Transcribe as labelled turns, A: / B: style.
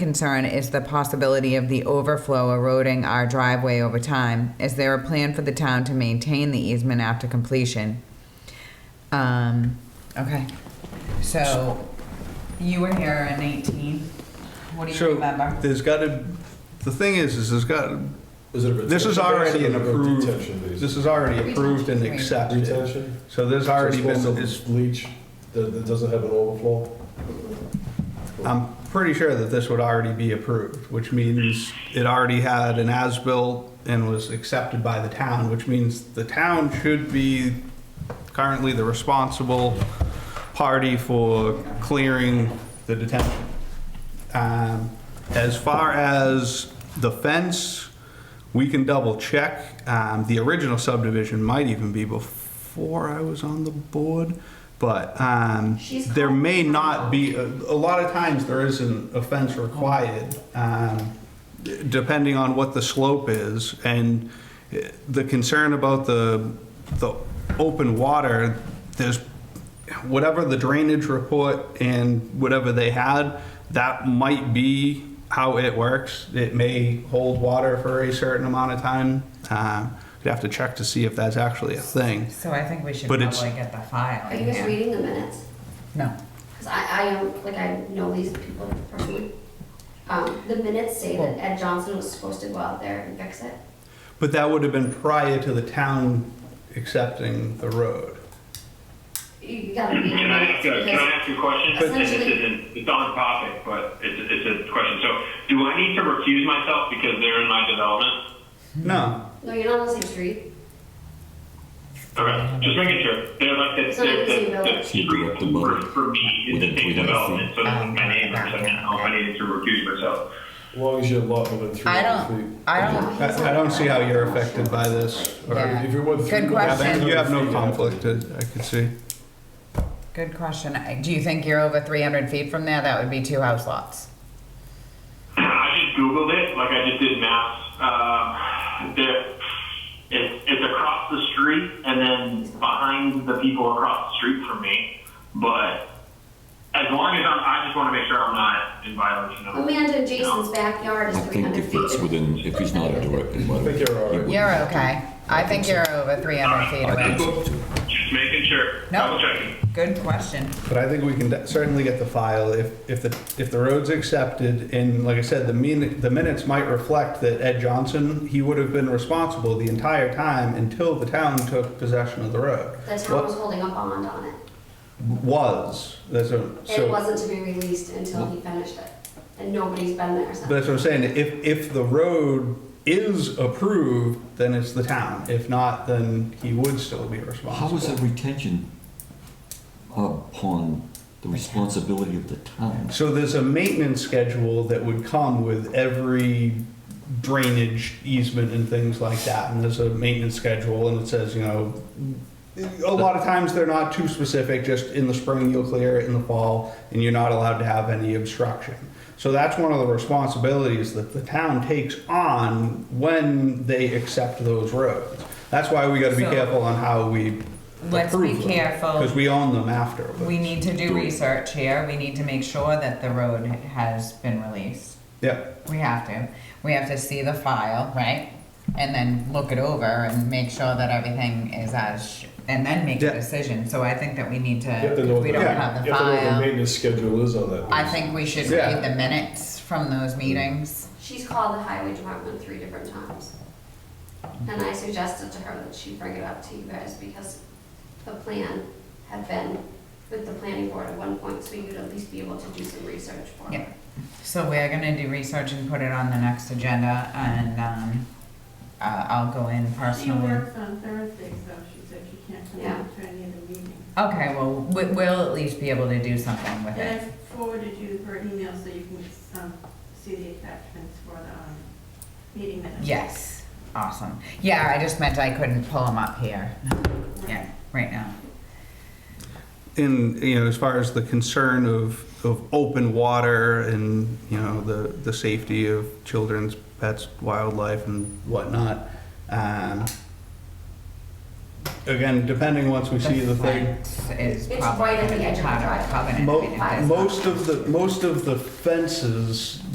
A: concern is the possibility of the overflow eroding our driveway over time. Is there a plan for the town to maintain the easement after completion? Um, okay, so you were here in eighteen. What do you
B: So
A: remember?
B: there's got to, the thing is, is there's got,
C: Is it a
B: this is
C: retention
B: already an
C: basin or a
B: approved,
C: Detention
B: this
C: basin.
B: is already approved and
A: Retention.
B: accepted.
C: Retention?
B: So there's already
C: So it's
B: been,
C: supposed to
B: it's-
C: Leach, that, that doesn't have an overflow?
B: I'm pretty sure that this would already be approved, which means it already had an as-built and was accepted by the town, which means the town should be currently the responsible party for clearing the detention. Um, As far as the fence, we can double check. Um, The original subdivision might even be before I was on the board, but um,
D: She's
B: there
D: called-
B: may not be, a a lot of times there isn't a fence required, um, depending on what the slope is. And eh, the concern about the, the open water, there's whatever the drainage report and whatever they had, that might be how it works. It may hold water for a certain amount of time. Uh, You'd have to check to see if that's actually a thing.
A: So I think we should
B: But it's-
A: probably get the file.
D: Are
A: in
D: you guys
A: here.
D: reading the minutes?
A: No.
D: Because I, I am, like, I know these people personally. Um, the minutes say that Ed Johnson was supposed to go out there and fix it.
B: But that would have been prior to the town accepting the road.
D: You gotta read the
E: Can I,
D: minutes
E: can I
D: because
E: ask you a question?
D: But-
E: And this isn't, it's on topic, but it's, it's a question. So do I need to recuse myself because they're in my development?
B: No,
D: No, you're not on the same street.
E: Okay, just making sure. They're like,
D: It's
E: it's,
D: not the
E: they're,
D: same
E: they're,
D: building.
E: they're
F: Keep it up to
E: for,
F: both.
E: for me,
F: With
E: it's
F: it-
E: the same
F: with it.
E: development, so
A: Um,
E: my neighbor, so I don't know if I needed to recuse myself.
C: As long as you're lot within three
A: I
C: hundred
A: don't,
C: feet.
A: I don't,
B: I I don't see how you're affected by this. or-
A: Yeah.
C: If you're within
A: Good
C: three hundred
A: question.
C: feet,
B: You have
C: you
B: no
C: to-
B: conflict, I I could see.
A: good question. I- Do you think you're over three hundred feet from there? That would be two house lots.
E: I just Googled it, like I just did maps. Um, there, it's, it's across the street and then behind the people across the street from me. But as long as I'm, I just want to make sure I'm not in violation of.
D: Amanda Jason's backyard
F: I
D: is three
F: think
D: hundred
F: if
D: feet.
F: it's within, if he's not a direct
C: I
F: abutter.
C: think you're all right.
F: he
A: You're
F: wouldn't.
A: okay. I think you're over three hundred feet
F: I think
A: away.
F: so too.
E: Just making sure.
A: No.
E: Double checking.
A: Good question.
B: But I think we can de- certainly get the file if, if the, if the road's accepted, and like I said, the min, the minutes might reflect that Ed Johnson, he would have been responsible the entire time until the town took possession of the road.
D: The town was holding a bond on it.
B: Was, that's what, so.
D: It wasn't to be released until he finished it. And nobody's been there
B: But
D: since.
B: that's what I'm saying, if, if the road is approved, then it's the town. If not, then he would still be
F: How
B: responsible.
F: was that retention upon the responsibility of the town?
B: So there's a maintenance schedule that would come with every drainage easement and things like that. And there's a maintenance schedule and it says, you know, a lot of times they're not too specific, just in the spring you'll clear it, in the fall, and you're not allowed to have any obstruction. So that's one of the responsibilities that the town takes on when they accept those roads. That's why we gotta be
A: So-
B: careful on how we
A: Let's be
B: approve them,
A: careful.
B: because we own them after.
A: Oh. We need to do research here. We need to make sure that the road has been released.
B: Yep.
A: We have to. We have to see the file, right? And then look it over and make sure that everything is as, sh- and then make a
B: Yeah.
A: decision. So I think that we need to,
C: You have to know
A: if
C: what
A: we
C: the,
A: don't
C: you
A: have
C: have to
A: the
C: know what the
A: file.
C: maintenance schedule is on that.
A: I think we should
B: Yeah.
A: read the minutes from those meetings.
D: She's called the highway department three different times. And I suggested to her that she bring it up to you guys because the plan had been with the planning board at one point, so you'd at least be able to do some research for
A: Yeah.
D: her.
A: So we're gonna do research and put it on the next agenda and, um, uh, I'll go in
G: She
A: personally.
G: works on Thursdays, though, she said she can't come
D: Yeah.
G: out to any of the meetings.
A: Okay, well, we- we'll at least be able to do something with
G: And
A: it.
G: I forwarded you her email so you can um, see the attachments for the um, meeting minutes.
A: Yes, awesome. Yeah, I just meant I couldn't pull them up here. Yeah, right now.
B: in you know as far as the concern of of open water and you know the the safety of children's pets wildlife and whatnot um, again depending once we see the thing
A: fence Is
D: It's
A: probably
D: right at the
A: gonna be
D: edge of the
A: part of our
D: driveway.
A: covenant. I mean,
B: mo-
A: it is-
B: most of the most of the fences